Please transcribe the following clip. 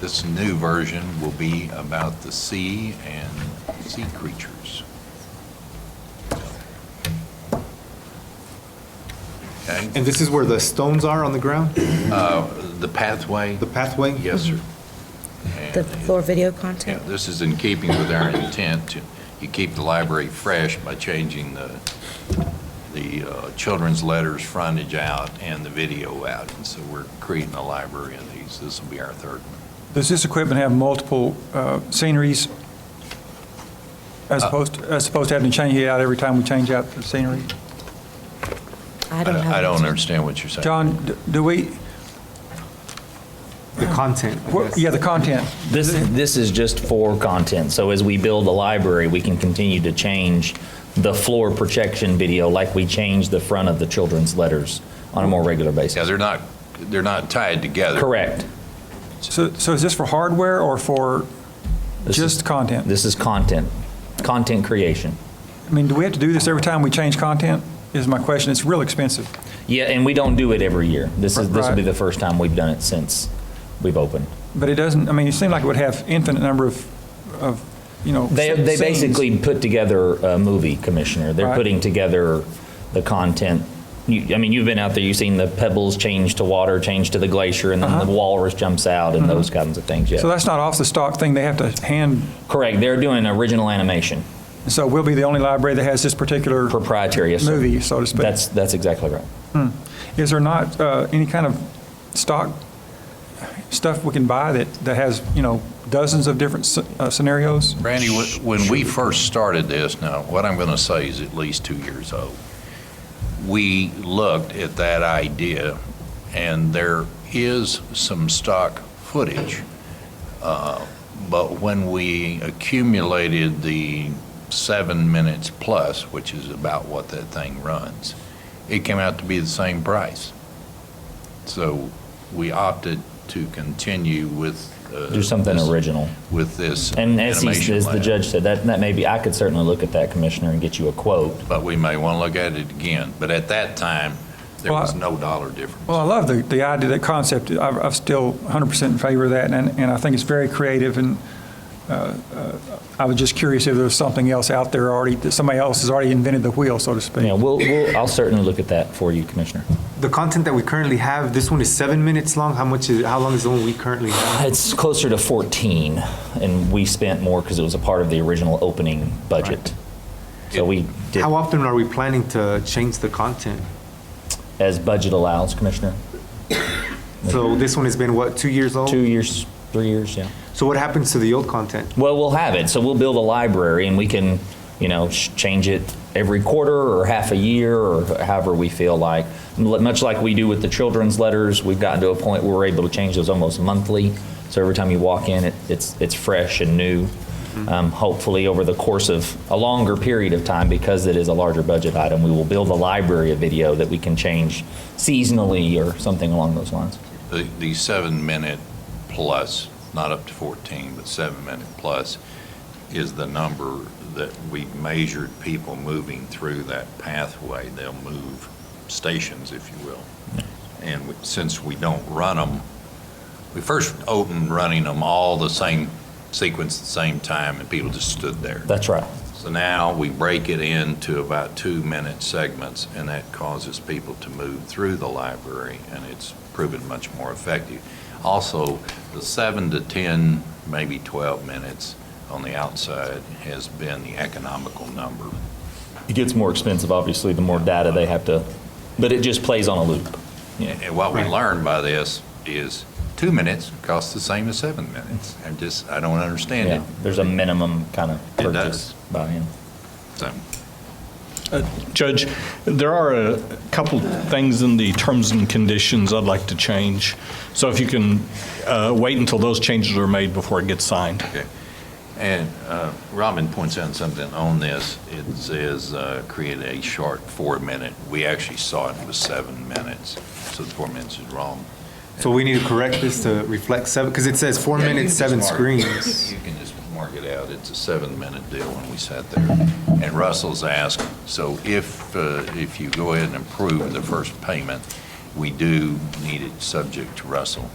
This new version will be about the sea and sea creatures. Okay, And this is where the stones are on the ground, uh, the pathway, the pathway? yes, sir. The And- floor video Yeah, content? this is in keeping with our intent to, you keep the library fresh by changing the, the uh, children's letters frontage out and the video out. And so we're creating a library of these. This will be our third one. Does this equipment have multiple uh, sceneries Uh, as opposed, as opposed to having to change it out every time we change out the scenery? I don't have. I don't it. understand what you're saying. John, d- do we, The content, I what- guess. yeah, the content. This, this is just for content, so as we build a library, we can continue to change the floor projection video like we change the front of the children's letters on a more regular Yeah, basis. they're not, they're not tied together. Correct. So, so is this for hardware or for This is- just content? This is content, content creation. I mean, do we have to do this every time we change content, is my question. It's real expensive. Yeah, and we don't do it every year. This is, this will be Right. the first time we've done it since we've opened. But it doesn't, I mean, it seemed like it would have infinite number of, of, you know. They, they scenes. basically put together a movie, Commissioner. They're Right. putting together the content. You, I mean, you've been out there, you've seen the pebbles change to water, change to the glacier, and then the walrus jumps out, and those kinds of things. Uh-huh. Yeah, Mm-hmm. So that's not off the stock thing. They have to hand, correct. They're doing original animation, so we'll be the only library that has this particular proprietary. Yes, sir. movie, so to speak. That's that's exactly right. Is there not uh, any kind of stock stuff we can buy that, that has, you know, dozens of different sce- uh, scenarios? Randy, wh- when we first started this, now, what I'm going to say is at least two years old. We looked at that idea, and there is some stock footage. uh, But when we accumulated the seven minutes plus, which is about what that thing runs, it came out to be the same price. So we opted to continue with. uh, Do something this- original. With this. And as, he, animation as the lab. judge said, that that may be. I could certainly look at that, Commissioner, and get you a quote. but we may want to look at it again. But at that time, there was no dollar difference. Well, I love the, the idea, the concept. I've, I'm still 100% in favor of that, and, and I think it's very creative, and uh, uh, I was just curious if there was something else out there already, that somebody else has already invented the wheel, so to speak. Yeah, we'll, we'll. I'll certainly look at that for you, Commissioner. The content that we currently have, this one is seven minutes long. How much is, how long is the one we currently have? Uh, It's closer to 14, and we spent more because it was a part of the original opening budget. So we did, How often are we planning to change the content? as budget allows, Commissioner, So this one has been, what, two years old? two years, three years, yeah. So what happens to the old content? Well, we'll have it, so we'll build a library, and we can, you know, sh- change it every quarter or half a year, or however we feel like. Mu- Much like we do with the children's letters, we've gotten to a point where we're able to change those almost monthly. So every time you walk in, it- it's, it's fresh and new. Um, Hopefully, over the course of a longer period of time, because it is a larger budget item, we will build a library of video that we can change seasonally or something along those lines. The, the seven minute plus, not up to 14, but seven minute plus is the number that we measured people moving through that pathway. They'll move stations, if you will. And we- since we don't run them, we first opened running them all the same sequence at the same time and people just stood there. That's right. So now we break it into about two-minute segments, and that causes people to move through the library, and it's proven much more effective. Also, the seven to 10, maybe 12 minutes on the outside has been the economical number. It gets more expensive, obviously, the more data they have to, but it just plays on a loop. Yeah. And what we Right. learned by this is two minutes costs the same as seven minutes. I'm just, I don't understand Yeah, it. there's a minimum kind of It does. purchase buy-in. So- Judge, there are a couple things in the terms and conditions I'd like to change. So if you can uh, wait until those changes are made before it gets signed. And uh, Robin points out something on this. It says, uh, create a short four-minute. We actually saw it was seven minutes, so the four minutes is wrong. So we need to correct this to reflect seven, because it says four Yeah, you minutes, can seven just mark- screens. You can just mark it out. It's a seven-minute deal when we sat there. And Russell's asked, so if, uh, if you go ahead and approve the first payment, we do need it subject to Russell